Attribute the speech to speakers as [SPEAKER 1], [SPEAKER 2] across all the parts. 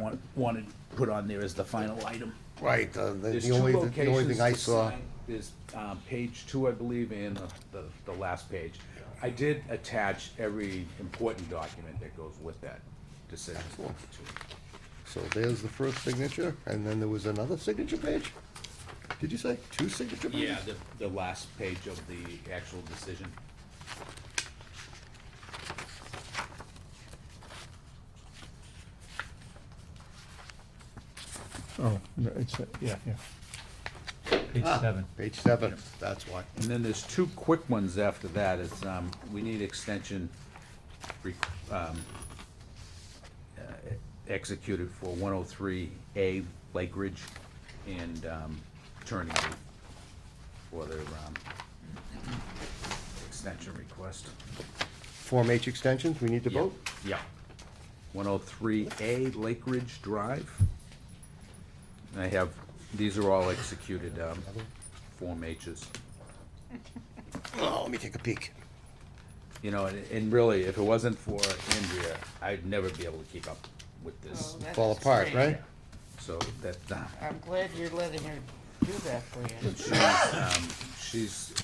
[SPEAKER 1] want, wanted put on there as the final item.
[SPEAKER 2] Right, uh, the
[SPEAKER 3] There's
[SPEAKER 2] the
[SPEAKER 3] two
[SPEAKER 2] only, the only
[SPEAKER 3] locations
[SPEAKER 2] thing I
[SPEAKER 3] to
[SPEAKER 2] saw,
[SPEAKER 3] sign. There's, um, page two, I believe, and the, the, the last page. I did attach every important document that goes with that decision.
[SPEAKER 2] so there's the first signature, and then there was another signature page? Did you say two signature pages?
[SPEAKER 3] Yeah, the, the last page of the actual decision.
[SPEAKER 4] Oh, no, it's, uh, yeah, yeah. Page seven.
[SPEAKER 2] Page seven, that's why.
[SPEAKER 3] And then there's two quick ones after that, it's, um, we need extension, re- um, uh, executed for one oh three A Lake Ridge and, um, Turning Leaf for their, um, extension request.
[SPEAKER 2] Form H extensions, we need to vote?
[SPEAKER 3] Yeah. One oh three A Lake Ridge Drive. And I have, these are all executed, um, Form H's.
[SPEAKER 2] Oh, let me take a peek.
[SPEAKER 3] You know, and, and really, if it wasn't for Andrea, I'd never be able to keep up with this.
[SPEAKER 5] Oh, that's
[SPEAKER 2] Fall apart,
[SPEAKER 5] great.
[SPEAKER 2] right?
[SPEAKER 3] So that, uh,
[SPEAKER 5] I'm glad you're letting her do that for you.
[SPEAKER 3] she's, um, she's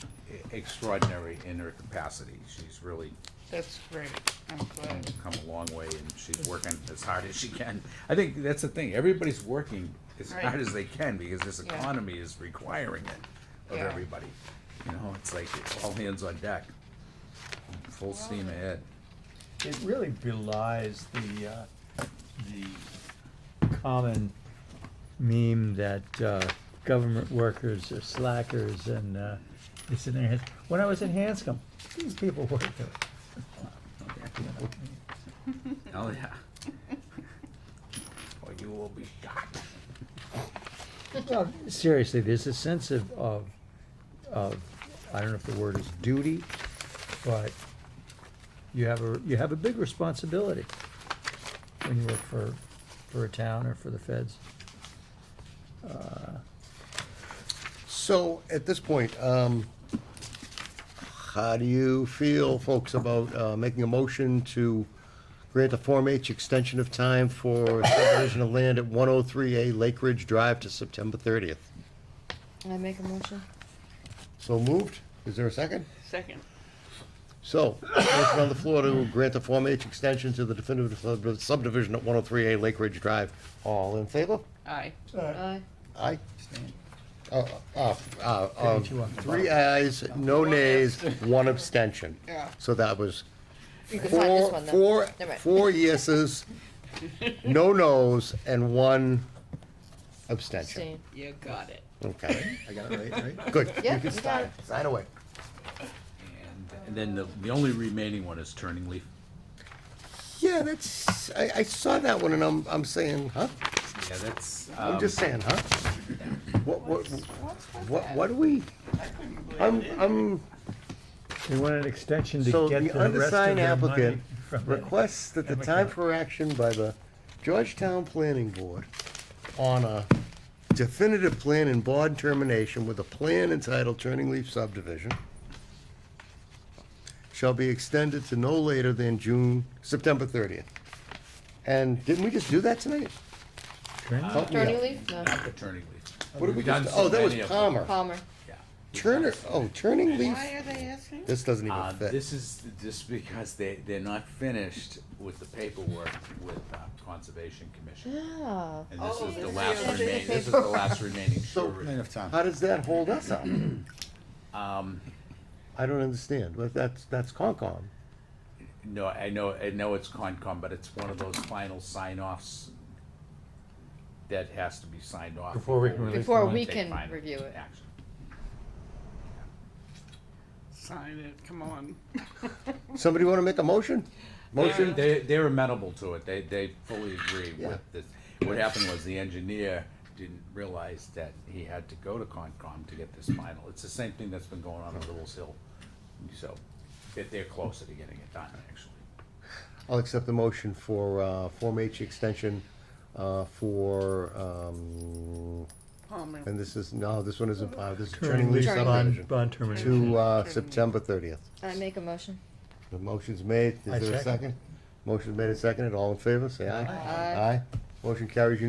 [SPEAKER 3] extraordinary in her capacity. She's really
[SPEAKER 5] That's great. I'm glad.
[SPEAKER 3] come a long way and she's working as hard as she can. I think that's the thing, everybody's working as
[SPEAKER 5] Right.
[SPEAKER 3] hard as they can because this
[SPEAKER 5] Yeah.
[SPEAKER 3] economy is requiring it of
[SPEAKER 5] Yeah.
[SPEAKER 3] everybody. You know, it's like all hands on deck, full steam ahead.
[SPEAKER 4] It really belies the, uh, the common meme that, uh, government workers are slackers and, uh, it's in their heads. When I was in Hanscom, these people worked there.
[SPEAKER 3] Oh, yeah. Or you will be shocked.
[SPEAKER 4] Well, seriously, there's a sense of, of, of, I don't know if the word is duty, but you have a, you have a big responsibility when you work for, for a town or for the feds.
[SPEAKER 2] So, at this point, um, how do you feel, folks, about, uh, making a motion to grant a Form H extension of time for subdivision of land at one oh three A Lake Ridge Drive to September thirtieth?
[SPEAKER 6] Can I make a motion?
[SPEAKER 2] So moved, is there a second?
[SPEAKER 5] Second.
[SPEAKER 2] So, motion on the floor to grant the Form H extension to the definitive sub- subdivision at 103A Lake Ridge Drive. All in favor?
[SPEAKER 5] Aye.
[SPEAKER 6] Aye.
[SPEAKER 2] Aye. Uh, uh, uh, um,
[SPEAKER 4] Didn't you want-
[SPEAKER 2] Three ayes, no nays, one abstention.
[SPEAKER 5] Yeah.
[SPEAKER 2] So that was
[SPEAKER 6] You can sign this
[SPEAKER 2] four,
[SPEAKER 6] one then.
[SPEAKER 2] four,
[SPEAKER 6] Never mind.
[SPEAKER 2] four yeses, no nos, and one abstention.
[SPEAKER 6] Abstain.
[SPEAKER 5] You got it.
[SPEAKER 2] Okay,
[SPEAKER 3] I got it right, right?
[SPEAKER 2] good.
[SPEAKER 6] Yeah,
[SPEAKER 2] You can
[SPEAKER 6] you got
[SPEAKER 2] sign, sign away.
[SPEAKER 3] And, and then the, the only remaining one is Turning Leaf.
[SPEAKER 2] Yeah, that's, I, I saw that one and I'm, I'm saying, huh?
[SPEAKER 3] Yeah, that's,
[SPEAKER 2] I'm
[SPEAKER 3] um,
[SPEAKER 2] just saying, huh? What, what, what, what do we, I'm, I'm,
[SPEAKER 4] They want an extension to
[SPEAKER 2] so
[SPEAKER 4] get
[SPEAKER 2] the
[SPEAKER 4] the rest of
[SPEAKER 2] undersigned
[SPEAKER 4] their money
[SPEAKER 2] applicant
[SPEAKER 4] from it.
[SPEAKER 2] requests that the time for action by the Georgetown Planning Board on a definitive plan and bond termination with a plan entitled Turning Leaf Subdivision shall be extended to no later than June, September thirtieth. And didn't we just do that tonight?
[SPEAKER 4] Uh,
[SPEAKER 2] Help me out.
[SPEAKER 6] Turning leaf? No.
[SPEAKER 3] not the Turning Leaf.
[SPEAKER 2] What did we
[SPEAKER 3] We've done
[SPEAKER 2] just,
[SPEAKER 3] so
[SPEAKER 2] oh, that was
[SPEAKER 3] many of them.
[SPEAKER 2] Palmer.
[SPEAKER 6] Palmer.
[SPEAKER 3] Yeah.
[SPEAKER 2] Turner, oh, turning leaf.
[SPEAKER 5] Why are they asking?
[SPEAKER 2] This doesn't
[SPEAKER 3] Uh,
[SPEAKER 2] even fit.
[SPEAKER 3] this is just because they, they're not finished with the paperwork with uh, Conservation Commission.
[SPEAKER 6] Ah.
[SPEAKER 3] And this
[SPEAKER 5] Oh,
[SPEAKER 3] is the
[SPEAKER 5] this
[SPEAKER 3] last
[SPEAKER 5] is-
[SPEAKER 3] remaining, this is the last remaining surety.
[SPEAKER 2] How does that hold us up?
[SPEAKER 3] Um,
[SPEAKER 2] I don't understand. Well, that's, that's Concom.
[SPEAKER 3] no, I know, I know it's Concom, but it's one of those final sign-offs that has to be signed off.
[SPEAKER 4] Before we can release
[SPEAKER 6] Before
[SPEAKER 4] the
[SPEAKER 6] we
[SPEAKER 3] take
[SPEAKER 6] can
[SPEAKER 3] final
[SPEAKER 6] review it.
[SPEAKER 3] action.
[SPEAKER 5] Sign it, come on.
[SPEAKER 2] Somebody wanna make a motion?
[SPEAKER 3] They,
[SPEAKER 2] Motion?
[SPEAKER 3] they, they're amenable to it, they, they fully agree
[SPEAKER 2] Yeah.
[SPEAKER 3] with this. What happened was the engineer didn't realize that he had to go to Concom to get this final. It's the same thing that's been going on at Little's Hill, so they they're closer to getting it done, actually.
[SPEAKER 2] I'll accept the motion for, uh, Form H extension, uh, for, um,
[SPEAKER 5] Palmer.
[SPEAKER 2] and this is, no, this one isn't, uh, this is turning leaf
[SPEAKER 6] Turning leaf.
[SPEAKER 2] subdivision.
[SPEAKER 4] Bond termination.
[SPEAKER 2] To, uh, September thirtieth.
[SPEAKER 6] I make a motion.
[SPEAKER 2] The motion's made.
[SPEAKER 4] I
[SPEAKER 2] Is there a
[SPEAKER 4] second.
[SPEAKER 2] second? Motion's made and seconded. All in favor, say aye.
[SPEAKER 6] Aye.
[SPEAKER 2] Aye. Motion carries